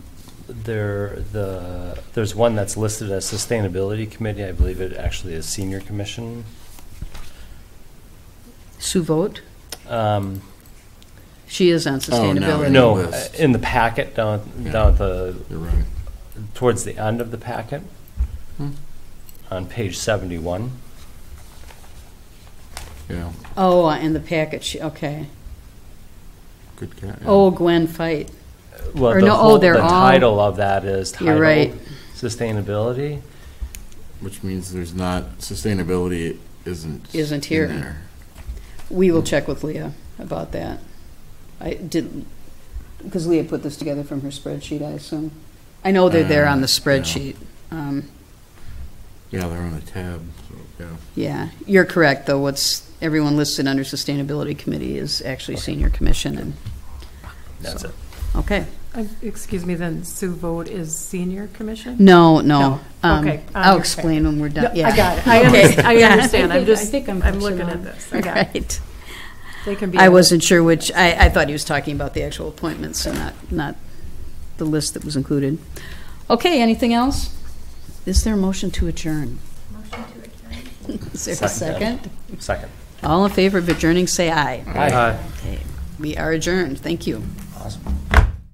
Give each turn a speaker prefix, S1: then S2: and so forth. S1: there, the, there's one that's listed as Sustainability Committee. I believe it actually is Senior Commission.
S2: Sue Vogt,
S1: Um,
S2: she is on
S3: Oh, no,
S2: sustainability.
S1: No,
S3: list.
S1: in the packet down,
S3: Yeah.
S1: down at the,
S3: You're right.
S1: towards the end of the packet,
S3: Hmm.
S1: on page 71.
S3: Yeah,
S2: Oh, in the package, okay.
S3: good cat. yeah.
S2: Oh, Gwen Fight.
S1: Well,
S2: Or
S1: the
S2: no, oh,
S1: whole-
S2: they're
S1: The
S2: all-
S1: title of that is
S2: You're
S1: titled
S2: right.
S1: Sustainability.
S3: Which means there's not, sustainability isn't.
S2: Isn't
S3: in
S2: here.
S3: there.
S2: We will check with Leah about that. I didn't, because Leah put this together from her spreadsheet, I assume. I know they're there on the
S3: Uh, yeah.
S2: spreadsheet. Um,
S3: Yeah, they're on a tab, so, yeah.
S2: Yeah, you're correct, though. What's, everyone listed under Sustainability Committee is actually Senior Commission, and,
S1: That's it.
S2: okay.
S4: Uh, Excuse me, then Sue Vogt is senior commission?
S2: No, no.
S4: No,
S2: Um,
S4: okay, I
S2: I'll
S4: understand.
S2: explain when we're done, yeah.
S4: I got it. I
S2: Okay.
S4: understand, I
S2: Yeah.
S4: understand. I'm
S5: I
S4: just,
S5: think I'm
S4: I'm looking
S5: catching
S4: at
S5: on.
S4: this. I got it.
S2: Right.
S4: They can be.
S2: I wasn't sure which, I, I thought he was talking about the actual appointments and not, not the list that was included. Okay, anything else? Is there a motion to adjourn? Motion to adjourn. Is there a
S1: Second.
S2: second?
S1: Second.
S2: All in favor of adjourning, say aye.
S1: Aye.
S2: Okay, We are adjourned, thank you.